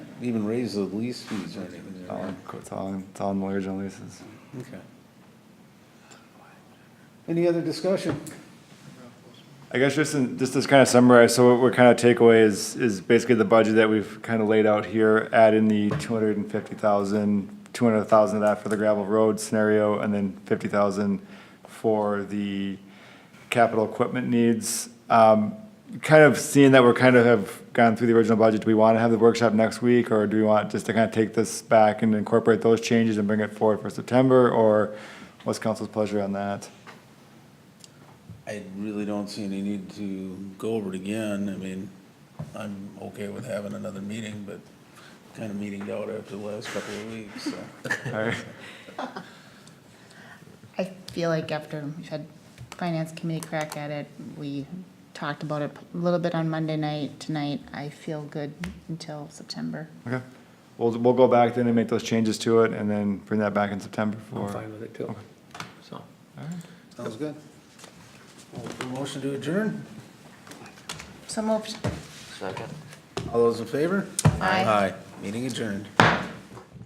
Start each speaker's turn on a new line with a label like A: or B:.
A: even raise the lease fees or anything, Colin.
B: It's all, it's all in lawyers and leases.
A: Okay. Any other discussion?
B: I guess just in, just to kind of summarize, so what we're kind of takeaway is, is basically the budget that we've kind of laid out here, add in the two hundred and fifty thousand, two hundred thousand of that for the gravel road scenario, and then fifty thousand for the capital equipment needs. Um, kind of seeing that we're kind of have gone through the original budget, do we want to have the workshop next week, or do we want just to kind of take this back and incorporate those changes and bring it forward for September, or what's council's pleasure on that?
A: I really don't see any need to go over it again. I mean, I'm okay with having another meeting, but kind of meeting out after the last couple of weeks, so.
B: All right.
C: I feel like after we had finance committee crack at it, we talked about it a little bit on Monday night, tonight, I feel good until September.
B: Okay. We'll, we'll go back then and make those changes to it and then bring that back in September
D: I'm
B: for.
D: fine with it too, so.
A: Sounds good. Well, for Motion to adjourn?
C: So moved.
A: All those in favor?
C: Aye.
A: Meeting adjourned.